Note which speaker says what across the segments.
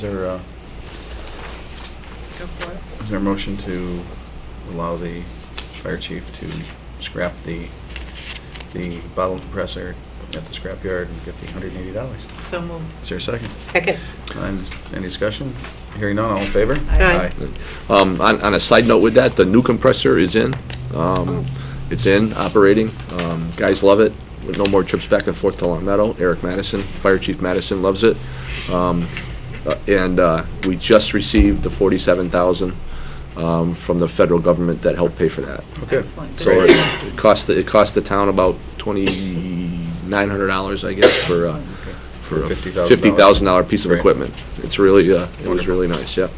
Speaker 1: there a,
Speaker 2: Go for it.
Speaker 1: is there a motion to allow the fire chief to scrap the, the bottle compressor at the scrapyard and get the hundred and eighty dollars?
Speaker 2: So moved.
Speaker 1: Is there a second?
Speaker 3: Second.
Speaker 1: And Any discussion? Hearing none, all in favor?
Speaker 3: Aye.
Speaker 4: Um, On on a side note with that, the new compressor is in. Um, It's in, operating. Um, Guys love it. With No more trips back and forth to Long Meadow. Eric Madison, Fire Chief Madison loves it. Um, uh, And uh, we just received the $47,000 um, from the federal government that helped pay for that.
Speaker 1: Okay.
Speaker 2: Excellent.
Speaker 4: So
Speaker 2: Very
Speaker 4: it
Speaker 2: good.
Speaker 4: it cost, the- it cost the town about $2,900, I guess, for, uh, for a
Speaker 1: $50,000.
Speaker 4: $50,000 piece of
Speaker 1: Great.
Speaker 4: equipment. It's really, uh, it was
Speaker 1: Wonderful.
Speaker 4: really nice, yeah.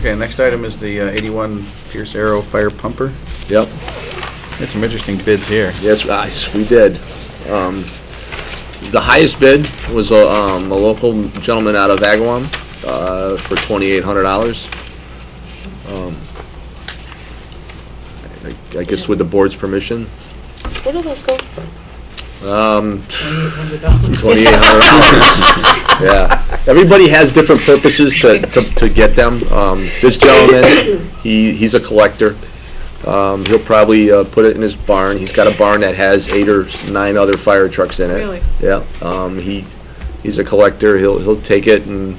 Speaker 1: Okay, next item is the uh, eighty-one Pierce Arrow Fire Pumper.
Speaker 4: Yep.
Speaker 1: Had some interesting bids here.
Speaker 4: Yes, guys, we did. Um, The highest bid was a um, a local gentleman out of Agawam uh, for $2,800. Um, I- I guess with the board's permission,
Speaker 3: Where do those go for?
Speaker 4: twenty-eight hundred dollars. Yeah, everybody has different purposes to, to, to get them. Um, this gentleman, he, he's a collector. Um, he'll probably, uh, put it in his barn. He's got a barn that has eight or nine other fire trucks in it.
Speaker 2: Really?
Speaker 4: Yeah, um, he, he's a collector. He'll, he'll take it and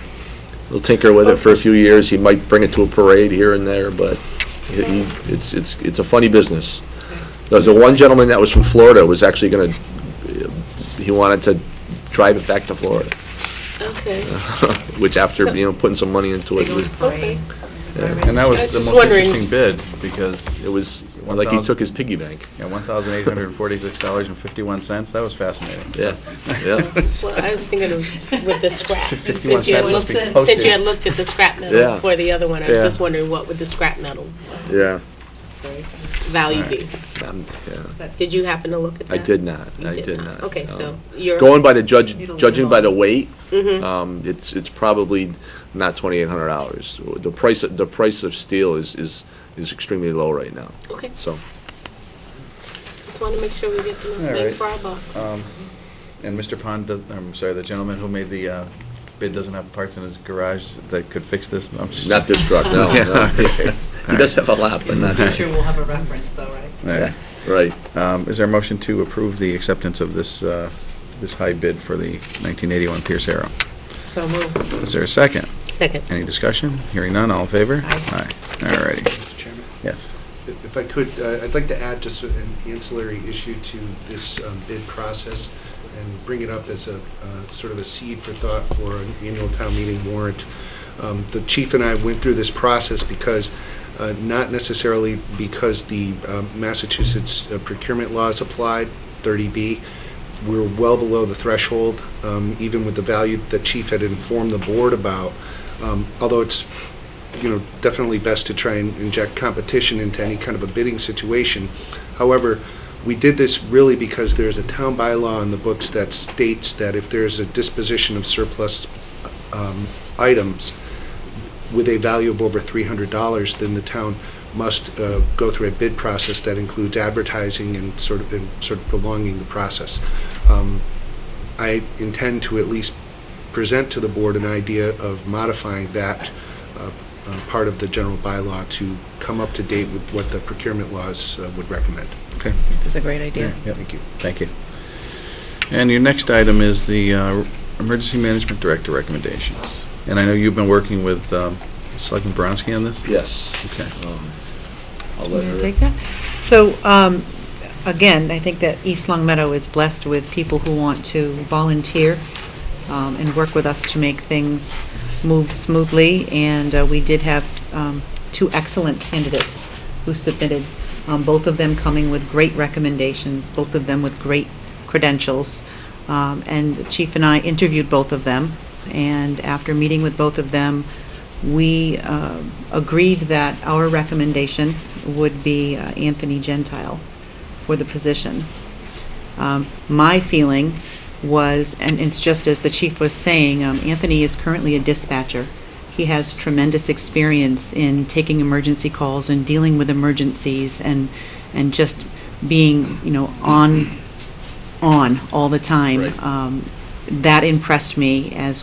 Speaker 4: he'll tinker with it for a few years. He might bring it to a parade here and there, but he, he- it's, it's, it's a funny business. There's the one gentleman that was from Florida was actually gonna, he wanted to drive it back to Florida,
Speaker 3: Okay.
Speaker 4: which after, you know, putting some money into
Speaker 2: They
Speaker 4: it,
Speaker 2: go
Speaker 4: it
Speaker 2: with
Speaker 4: was,
Speaker 2: parades.
Speaker 1: And that was
Speaker 3: I was
Speaker 1: the
Speaker 3: just
Speaker 1: most
Speaker 3: wondering.
Speaker 1: interesting bid, because
Speaker 4: it was like he took his piggy bank.
Speaker 1: Yeah, one thousand eight hundred and forty-six dollars and fifty-one cents, that was fascinating.
Speaker 4: Yeah, yeah,
Speaker 3: Well, I was thinking of with the scrap.
Speaker 1: 51
Speaker 3: Since you had
Speaker 1: cents must
Speaker 3: looked,
Speaker 1: be
Speaker 3: since you
Speaker 1: postage.
Speaker 3: had looked at the scrap
Speaker 4: Yeah.
Speaker 3: metal for the other one, I was
Speaker 4: Yeah.
Speaker 3: just wondering what would the scrap metal
Speaker 4: yeah.
Speaker 3: value
Speaker 1: Right.
Speaker 3: be?
Speaker 4: Um, yeah.
Speaker 3: Did you happen to look at
Speaker 4: I
Speaker 3: that?
Speaker 4: did not,
Speaker 3: You
Speaker 4: I did not.
Speaker 3: Okay, so
Speaker 4: Um,
Speaker 3: you're.
Speaker 4: Going by the judge,
Speaker 2: Need a
Speaker 4: judging by the
Speaker 2: little-
Speaker 4: weight, um, it's, it's probably not twenty-eight hundred dollars. The price, of- the price of steel is, is, is extremely low right now,
Speaker 3: Okay,
Speaker 4: so.
Speaker 3: just want to make sure we get the most
Speaker 1: All
Speaker 3: bang
Speaker 1: right.
Speaker 3: for our buck.
Speaker 1: Um, And Mr. Pond does, I'm sorry, the gentleman who made the uh, bid doesn't have parts in his garage that could fix this? I'm just-
Speaker 4: Not this truck, no,
Speaker 1: Yeah,
Speaker 4: no.
Speaker 1: okay.
Speaker 4: He does have a lot, but not this.
Speaker 2: Sure we'll have a reference though, right?
Speaker 1: All right.
Speaker 4: Right,
Speaker 1: Um, Is there a motion to approve the acceptance of this, uh, this high bid for the nineteen eighty-one Pierce Arrow?
Speaker 2: So moved.
Speaker 1: Is there a second?
Speaker 3: Second.
Speaker 1: Any discussion? Hearing none, all in favor?
Speaker 2: Aye.
Speaker 1: Aye, all righty,
Speaker 5: Mr. Chairman,
Speaker 1: yes.
Speaker 5: if if I could, uh, I'd like to add just an ancillary issue to this um, bid process and bring it up as a, uh, sort of a seed for thought for an annual town meeting warrant. Um, The chief and I went through this process because, uh, not necessarily because the um, Massachusetts uh, procurement laws applied, 30B, we're well below the threshold, um, even with the value that chief had informed the board about. Um, Although it's you know, definitely best to try and inject competition into any kind of a bidding situation. However, we did this really because there's a town bylaw in the books that states that if there's a disposition of surplus um, items with a value of over $300, then the town must uh, go through a bid process that includes advertising and sort of, and sort of prolonging the process. Um, I intend to at least present to the board an idea of modifying that uh, uh, part of the general bylaw to come up to date with what the procurement laws uh, would recommend.
Speaker 1: Okay.
Speaker 2: That's a great idea.
Speaker 1: Yep. Thank you. And your next item is the uh, Emergency Management Director recommendations. And I know you've been working with um, Selectman Bronski on this?
Speaker 4: yes.
Speaker 1: Okay.
Speaker 4: Um, I'll let
Speaker 6: Can I
Speaker 4: her.
Speaker 6: take that? So, um, again, I think that East Long Meadow is blessed with people who want to volunteer um, and work with us to make things move smoothly, and uh, we did have um, two excellent candidates who submitted, um, both of them coming with great recommendations, both of them with great credentials. Um, And the Chief and I interviewed both of them, and after meeting with both of them, we uh, agreed that our recommendation would be uh, Anthony Gentile for the position. Um, My feeling was, and it's just as the chief was saying, um, Anthony is currently a dispatcher. He has tremendous experience in taking emergency calls and dealing with emergencies and, and just being, you know, on, on all the time.
Speaker 4: Right.
Speaker 6: Um, that impressed me as